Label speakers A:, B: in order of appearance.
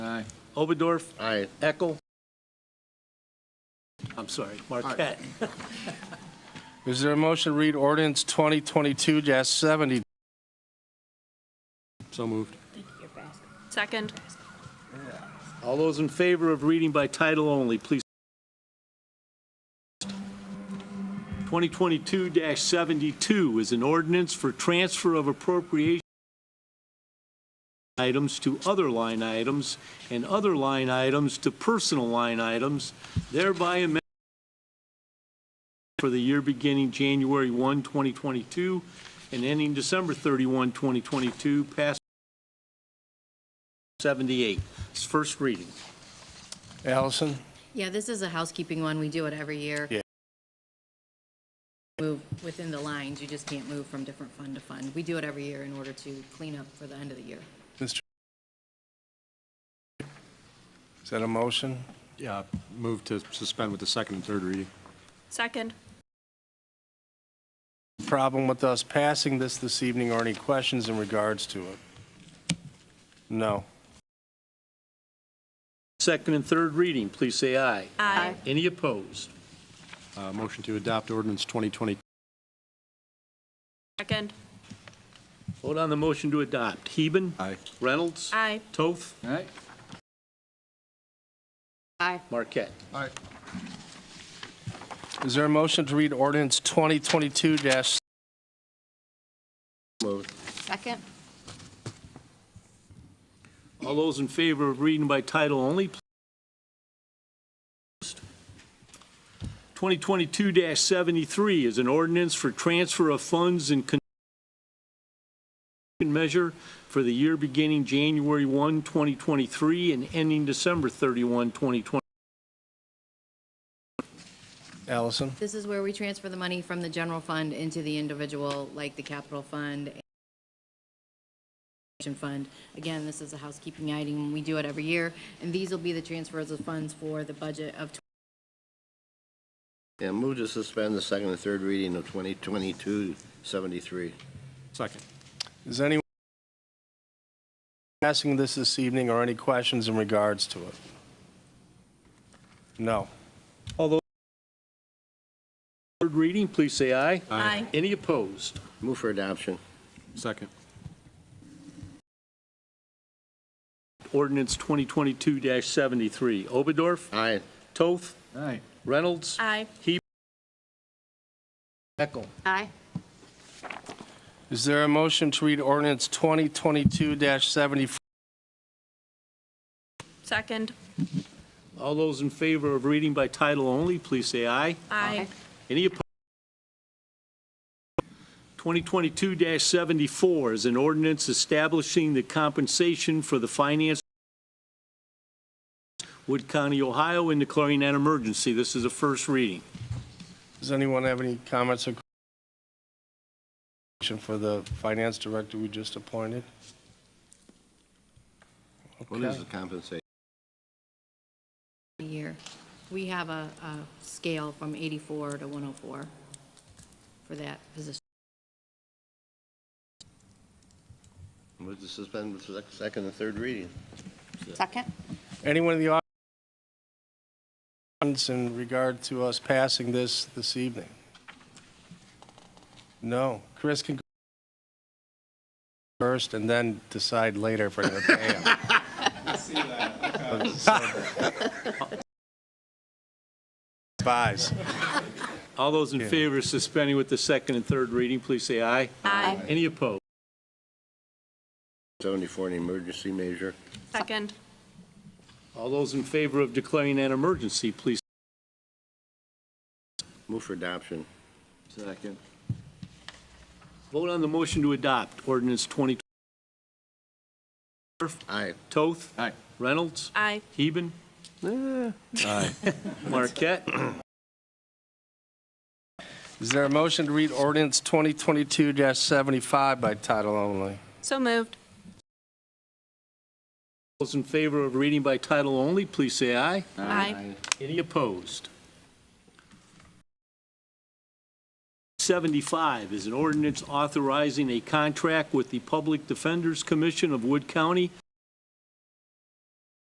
A: Oberdorf,
B: Aye.
A: Eckel. I'm sorry, Marquette.
B: Is there a motion to read ordinance 2022-70?
C: So moved.
D: Second.
A: All those in favor of reading by title only, please. 2022-72 is an ordinance for transfer of appropriation items to other line items and other line items to personal line items, thereby amending for the year beginning January 1, 2022, and ending December 31, 2022, passed 78. It's first reading.
B: Allison?
E: Yeah, this is a housekeeping one. We do it every year.
B: Yeah.
E: Move within the lines. You just can't move from different fund to fund. We do it every year in order to clean up for the end of the year.
B: Is that a motion?
C: Yeah, moved to suspend with the second and third reading.
D: Second.
B: Problem with us passing this this evening or any questions in regards to it? No.
A: Second and third reading, please say aye.
D: Aye.
A: Any opposed?
C: Uh, Motion to adopt ordinance 2020.
D: Second.
A: Vote on the motion to adopt. Heben.
C: Aye.
A: Reynolds.
D: Aye.
A: Toth.
F: Aye.
E: Aye.
A: Marquette.
F: Aye.
B: Is there a motion to read ordinance 2022-? Moved.
E: Second?
A: All those in favor of reading by title only, please. 2022-73 is an ordinance for transfer of funds and con- measure for the year beginning January 1, 2023, and ending December 31, 2020.
B: Allison?
E: This is where we transfer the money from the general fund into the individual, like the capital fund. and Fund. Again, this is a housekeeping item. We do it every year. And these will be the transfers of funds for the budget of
G: Yeah, move to suspend the second and third reading of 2022-73.
C: Second.
B: Is anyone passing this this evening or any questions in regards to it? No.
A: Third reading, please say aye.
D: Aye.
A: Any opposed?
G: Move for adoption.
C: Second.
A: Ordinance 2022-73. Oberdorf,
G: Aye.
A: Toth,
F: Aye.
A: Reynolds,
D: Aye.
A: Heckle.
E: Aye.
B: Is there a motion to read ordinance 2022-74?
D: Second.
A: All those in favor of reading by title only, please say aye.
D: Aye.
A: Any opposed? 2022-74 is an ordinance establishing the compensation for the finance Wood County, Ohio, and declaring an emergency. This is a first reading.
B: Does anyone have any comments or questions for the finance director we just appointed?
G: What is the compensation?
E: a year. We have a, a scale from 84 to 104 for that position.
G: Move to suspend the sec- second and third reading.
B: Anyone in the audience in regard to us passing this this evening? No. Chris can go first and then decide later if we're going to pay him. Buys.
A: All those in favor of suspending with the second and third reading, please say aye.
D: Aye.
A: Any opposed?
G: 74, an emergency measure.
D: Second.
A: All those in favor of declaring an emergency, please.
G: Move for adoption.
F: Second.
A: Vote on the motion to adopt ordinance 20.
G: Aye.
A: Toth.
F: Aye.
A: Reynolds.
D: Aye.
A: Heben.
C: Aye.
A: Marquette.
B: Is there a motion to read ordinance 2022-75 by title only?
D: So moved.
A: Those in favor of reading by title only, please say aye.
D: Aye.
A: Any opposed? 75 is an ordinance authorizing a contract with the Public Defenders Commission of Wood County